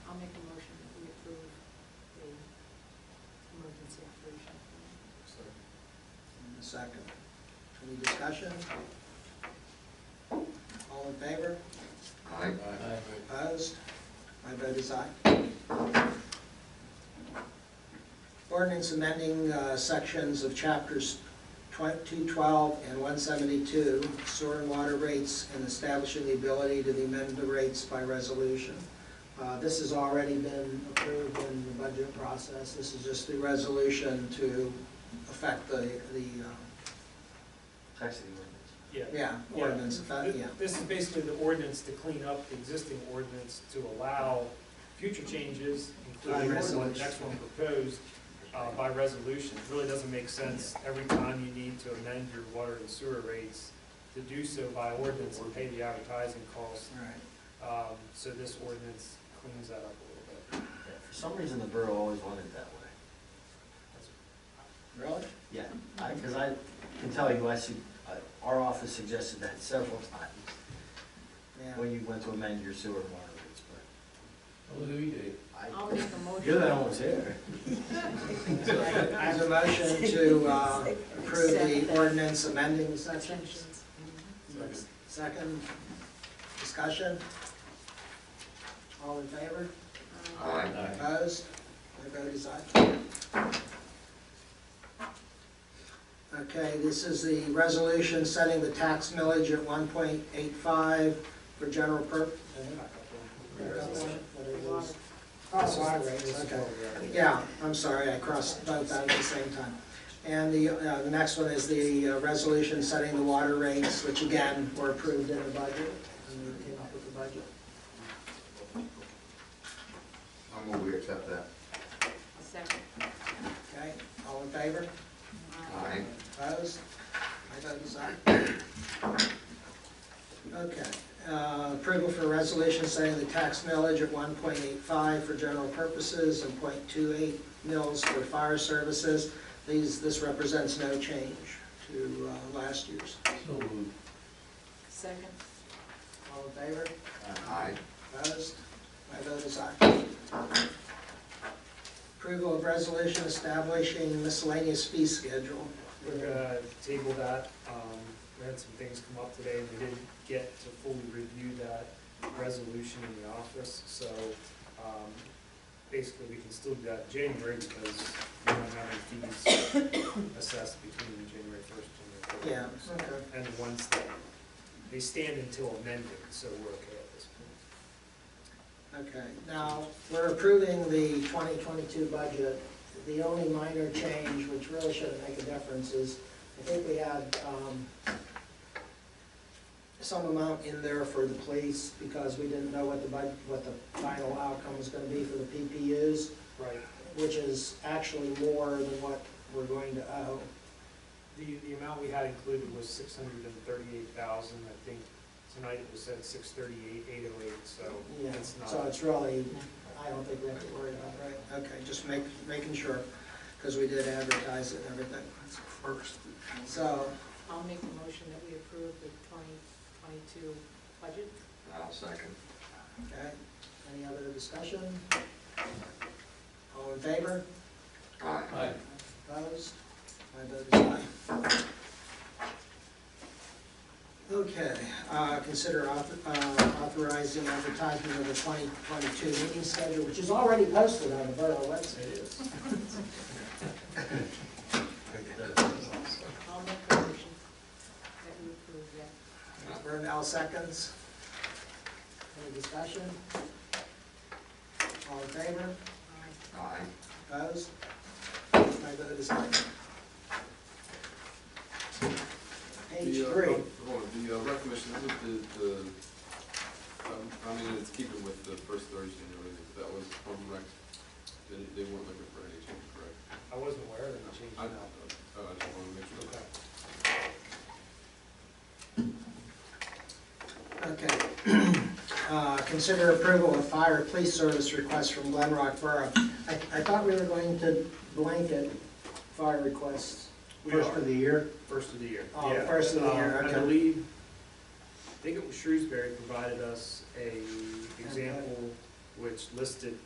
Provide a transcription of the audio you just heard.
second. Any discussion? All in favor? Aye. Opposed? My vote is aye. Ordinance amending uh, sections of chapters 212 and 172, sewer and water rates, and establishing the ability to amend the rates by resolution. Uh, This has already been approved in the budget process. This is just the resolution to affect the, the, uh, Taxing ordinance. Yeah. yeah, Yeah. ordinance, effect, yeah. This is basically the ordinance to clean up the existing ordinance to allow future changes, By including the one- the resolution. next one proposed, uh, by resolution. It really doesn't make sense every time you need to amend your water and sewer rates to do so by ordinance and pay the advertising costs. All right. Um, So this ordinance cleans that up a little bit. Yeah, For some reason, the borough always wanted it that way. Really? Yeah, I, because I can tell you, I see, our office suggested that several times Yeah. when you went to amend your sewer and water rates, but I'll make a I, motion. you're the one who's here. I have a motion to uh, approve the ordinance amending section. Second, discussion? All in favor? Uh, Opposed? My vote is aye. Okay, this is the resolution setting the tax millage at one point eight five for general pur. Oh, water rates, okay. Yeah, I'm sorry, I crossed both out at the same time. And the, uh, the next one is the uh, resolution setting the water rates, which again, were approved in the budget, and we came up with the budget. I'm going to accept that. Second. Okay, all in favor? Aye. Uh, Opposed? My vote is aye. Okay, uh, approval for resolution setting the tax millage at one point eight five for general purposes and 0.28 mils for fire services. These, this represents no change to uh, last year's. So moved. Second. All in favor? Aye. Opposed? My vote is aye. Approval of resolution establishing miscellaneous fee schedule. We're gonna table that. Um, We had some things come up today, and we didn't get to fully review that resolution in the office, so um, basically, we can still do that in January, because we don't have any fees assessed between January first Yeah, and January first. okay. And the ones that, they stand until amended, so we're okay at this point. Okay, now, we're approving the 2022 budget. The only minor change, which really shouldn't make a difference, is I think we had um, some amount in there for the police because we didn't know what the, bud- what the final outcome was going to be for the PPUs, Right. which is actually more than what we're going to owe. The, the amount we had included was six hundred and thirty-eight thousand, I think tonight it was at six thirty-eight, eight oh eight, so Yeah, it's not. so it's really, I don't think we have to worry about it, right? Okay, just make, making sure, because we did advertise it and everything. First. So, I'll make a motion that we approve the twenty twenty-two budget. I'll second. okay, any other discussion? All in favor? Aye. Opposed? My vote is aye. Okay, uh, consider auth- uh, authorizing advertisement of the 2022 meeting schedule, which is already posted on the borough website. It is. I'll make a motion that we approve that. Vern L. seconds. Any discussion? All in favor? Aye. Aye. Opposed? My vote is aye. Page The, uh, three. Hold on, the uh, rec commission, this is the, the, um, I mean, it's keeping with the first Thursday in everything, but that was from rec, they, they weren't looking for any change, correct? I wasn't aware of any change. I, uh, I just wanted to make sure. Okay. Okay. Uh, Consider approval of fire police service request from Glen Rock Borough. I, I thought we were going to blanket fire requests We first are. of the year. First of the year. Oh, Yeah. first of the Um, year, okay. I believe, I think it was Shrewsbury provided us a example which listed